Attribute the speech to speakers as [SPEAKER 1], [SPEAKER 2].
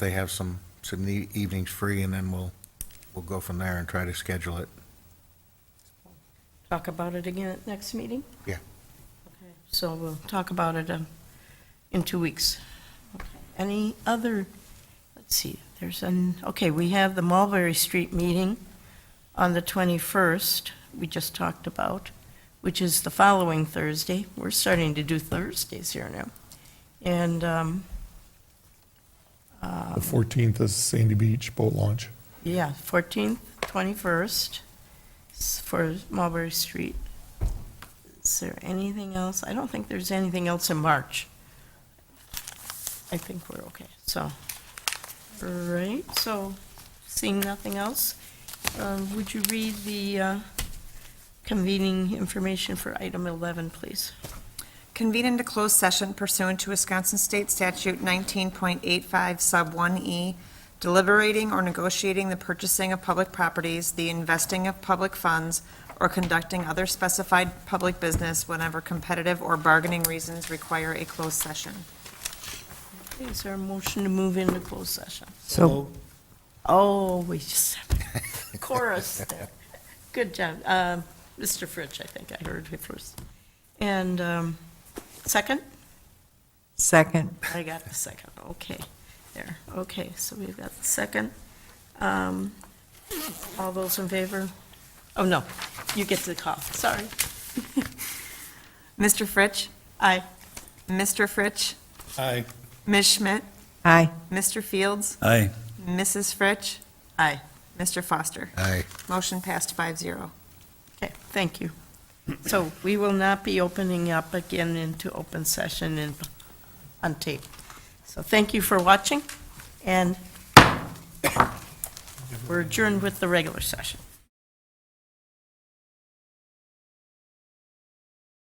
[SPEAKER 1] they have some, some e- evenings free, and then we'll, we'll go from there and try to schedule it.
[SPEAKER 2] Talk about it again at next meeting?
[SPEAKER 1] Yeah.
[SPEAKER 2] Okay. So we'll talk about it um, in two weeks. Any other, let's see, there's an, okay, we have the Mulberry Street meeting on the 21st, we just talked about, which is the following Thursday. We're starting to do Thursdays here now. And, um,
[SPEAKER 3] The 14th is Sandy Beach boat launch.
[SPEAKER 2] yeah, 14th, 21st s- for Mulberry Street. Is there anything else? I don't think there's anything else in March. I think we're okay, so. All right, so seeing nothing else, um, would you read the uh, convening information for item 11, please?
[SPEAKER 4] Convene into closed session pursuant to Wisconsin State Statute 19.85 Sub 1E, deliberating or negotiating the purchasing of public properties, the investing of public funds, or conducting other specified public business whenever competitive or bargaining reasons require a closed session.
[SPEAKER 2] Is there a motion to move into closed session?
[SPEAKER 5] So,
[SPEAKER 2] Oh, we just, chorus there. Good job. Um, Mr. Fritsch, I think I heard you first. And um, second?
[SPEAKER 5] second.
[SPEAKER 2] I got the second, okay. There, okay, so we've got the second. Um, All those in favor? Oh, no, you get to call, sorry.
[SPEAKER 4] Mr. Fritsch?
[SPEAKER 2] Aye.
[SPEAKER 4] Mr. Fritsch?
[SPEAKER 3] Aye.
[SPEAKER 4] Ms. Schmidt?
[SPEAKER 5] Aye.
[SPEAKER 4] Mr. Fields?
[SPEAKER 6] Aye.
[SPEAKER 4] Mrs. Fritsch?
[SPEAKER 2] Aye.
[SPEAKER 4] Mr. Foster?
[SPEAKER 1] Aye.
[SPEAKER 4] Motion passed 5-0.
[SPEAKER 2] Okay, thank you. So we will not be opening up again into open session and on tape. So thank you for watching, and we're adjourned with the regular session.